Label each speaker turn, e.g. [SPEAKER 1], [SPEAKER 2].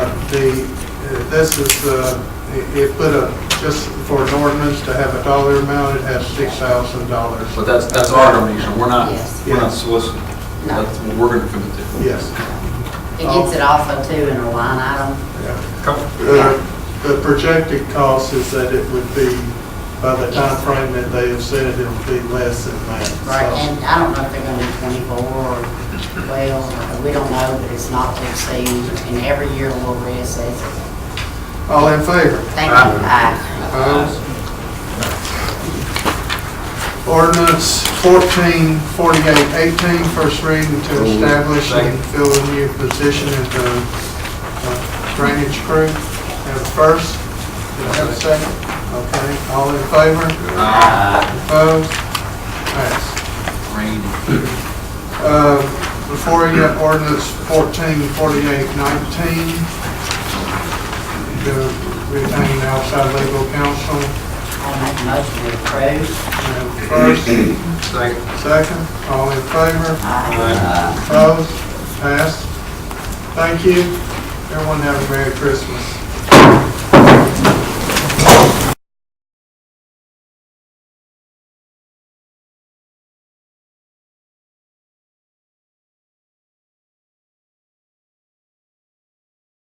[SPEAKER 1] the, uh, this is, uh, it- it put a, just for an ordinance to have a dollar amount, it has six thousand dollars.
[SPEAKER 2] But that's, that's our donation, we're not,
[SPEAKER 3] Yes.
[SPEAKER 2] we're not soliciting.
[SPEAKER 3] No.
[SPEAKER 2] That's what we're gonna commit to.
[SPEAKER 1] Yes.
[SPEAKER 3] It gets it off of two in a line item.
[SPEAKER 1] yeah.
[SPEAKER 2] Couple-
[SPEAKER 1] Uh, The projected cost is that it would be, by the time frame that they have said, it would be less than that. so-
[SPEAKER 3] Right, and I don't know if they're gonna be twenty-four or twelve, or- we don't know, but it's not to exceed, and every year we'll reassess it.
[SPEAKER 1] All in favor?
[SPEAKER 3] Thank you, aye.
[SPEAKER 1] Opposed? Ordinance 144818, first reading to establish and fill a new position at the uh, drainage crew. Have a first, Do I have a second? Okay, all in favor?
[SPEAKER 2] Ah,
[SPEAKER 1] Opposed? Passed.
[SPEAKER 2] rain.
[SPEAKER 1] Uh, Before you have ordinance fourteen forty-eight nineteen, to retain outside legal counsel.
[SPEAKER 3] I'll make a motion to approve.
[SPEAKER 1] And First,
[SPEAKER 2] Second.
[SPEAKER 1] second, all in favor,
[SPEAKER 2] Aye.
[SPEAKER 1] opposed, passed. Thank you. Everyone have a Merry Christmas.